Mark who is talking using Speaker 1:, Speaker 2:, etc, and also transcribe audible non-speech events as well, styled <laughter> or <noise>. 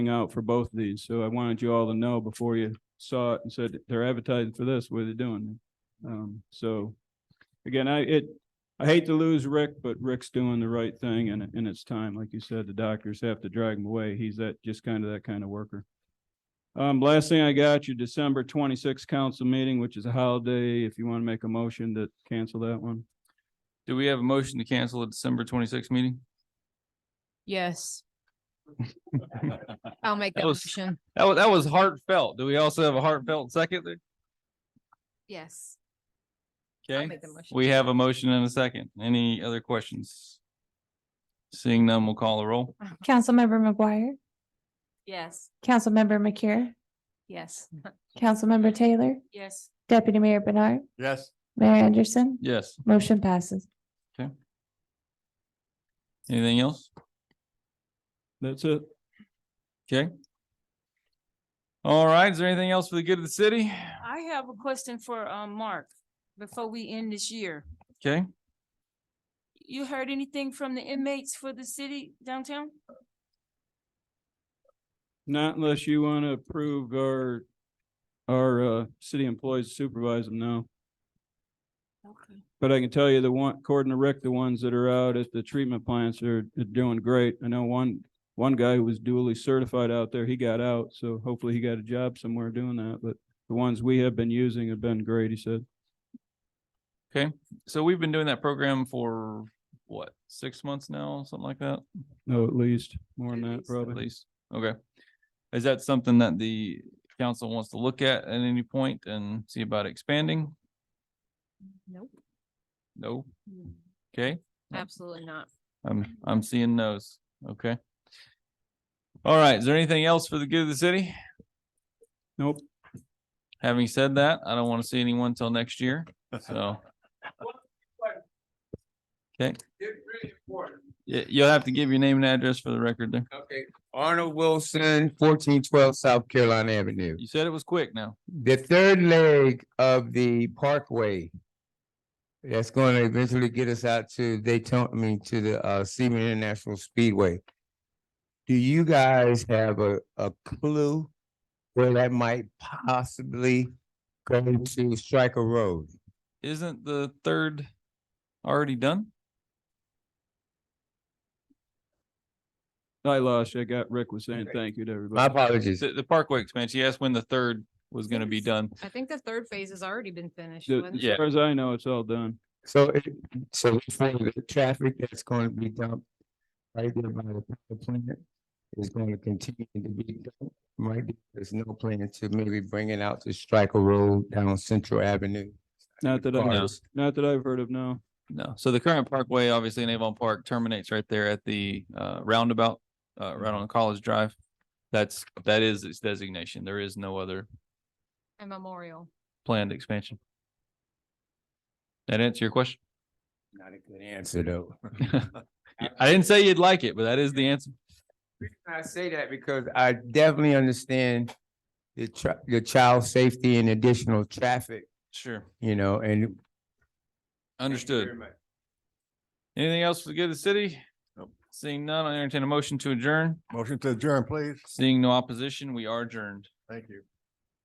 Speaker 1: out for both of these, so I wanted you all to know before you saw it and said they're advertising for this, what are they doing? Um, so again, I, it, I hate to lose Rick, but Rick's doing the right thing and, and it's time, like you said, the doctors have to drag him away. He's that, just kind of that kind of worker. Um, last thing I got, your December twenty-sixth council meeting, which is a holiday, if you want to make a motion to cancel that one.
Speaker 2: Do we have a motion to cancel the December twenty-sixth meeting?
Speaker 3: Yes. I'll make
Speaker 2: That
Speaker 3: that
Speaker 2: was-
Speaker 3: motion.
Speaker 2: That was, that was heartfelt. Do we also have a heartfelt second there?
Speaker 3: Yes. I'll
Speaker 2: Okay,
Speaker 3: make the motion.
Speaker 2: we have a motion and a second. Any other questions? Seeing none, we'll call the roll.
Speaker 4: Councilmember McGuire,
Speaker 3: Yes.
Speaker 4: Councilmember McCure,
Speaker 3: Yes.
Speaker 4: Councilmember Taylor,
Speaker 3: Yes.
Speaker 4: Deputy Mayor Bernard,
Speaker 5: Yes.
Speaker 4: Mayor Anderson,
Speaker 2: Yes,
Speaker 4: motion passes.
Speaker 2: anything else?
Speaker 1: That's it.
Speaker 2: Okay. All right, is there anything else for the good of the city?
Speaker 6: I have a question for um Mark before we end this year.
Speaker 2: Okay,
Speaker 6: You heard anything from the inmates for the city downtown?
Speaker 1: Not unless you want to approve our, our, uh, city employees supervise them now.
Speaker 6: Okay.
Speaker 1: But I can tell you the one, according to Rick, the ones that are out at the treatment plants are are doing great. I know one, one guy who was duly certified out there, he got out, so hopefully he got a job somewhere doing that, but the ones we have been using have been great, he said.
Speaker 2: so we've been doing that program for what, six months now, something like that?
Speaker 1: No, at least, more than
Speaker 6: At
Speaker 1: that
Speaker 6: least, at
Speaker 2: At
Speaker 1: probably.
Speaker 2: least, okay. Is that something that the council wants to look at at any point and see about expanding?
Speaker 3: Nope.
Speaker 2: No? Okay,
Speaker 3: Absolutely not.
Speaker 2: I'm, I'm seeing no's. Okay. All right, is there anything else for the good of the city?
Speaker 1: Nope,
Speaker 2: Having said that, I don't want to see anyone till next year, so. Okay. Y- You'll have to give your name and address for the record there.
Speaker 7: Okay, Arnold Wilson, fourteen twelve South Carolina Avenue.
Speaker 2: You said it was quick now.
Speaker 7: The third leg of the parkway. That's going to eventually get us out to Daytona, I mean, to the uh Seaman International Speedway. Do you guys have a a clue where that might possibly go to Striker Road?
Speaker 2: Isn't the third already done?
Speaker 1: I lost, you. I got, Rick was saying thank you to
Speaker 7: My
Speaker 1: everybody.
Speaker 7: apologies.
Speaker 2: The, the Parkway expansion, yes, when the third was gonna be
Speaker 3: Yes.
Speaker 2: done.
Speaker 3: I think the third phase has already been finished.
Speaker 1: So,
Speaker 3: wasn't
Speaker 1: As
Speaker 3: it?
Speaker 2: Yeah.
Speaker 1: far as I know, it's all done.
Speaker 7: So it, so it's like the traffic that's going to be dumped right there by the power plant is going to continue to be dumped. Right, there. there's no plan to maybe bring it out to Striker Road down Central Avenue.
Speaker 1: Not that I,
Speaker 7: Cars.
Speaker 1: not that I've heard of, no.
Speaker 2: No, so the current parkway, obviously in Avon Park terminates right there at the uh roundabout, uh right on College Drive. That's, that is its designation. There is no other
Speaker 3: A memorial.
Speaker 2: planned expansion. That answer your question? <laughs>
Speaker 7: Not a good answer, though. <laughs>
Speaker 2: I didn't say you'd like it, but that is the answer.
Speaker 7: I say that because I definitely understand the tra- the child safety and additional traffic,
Speaker 2: Sure.
Speaker 7: you know, and.
Speaker 2: Understood. Anything else for the good of the city? Seeing none, I entertain a motion to adjourn.
Speaker 5: Motion to adjourn, please.
Speaker 2: Seeing no opposition, we are adjourned.
Speaker 5: Thank you.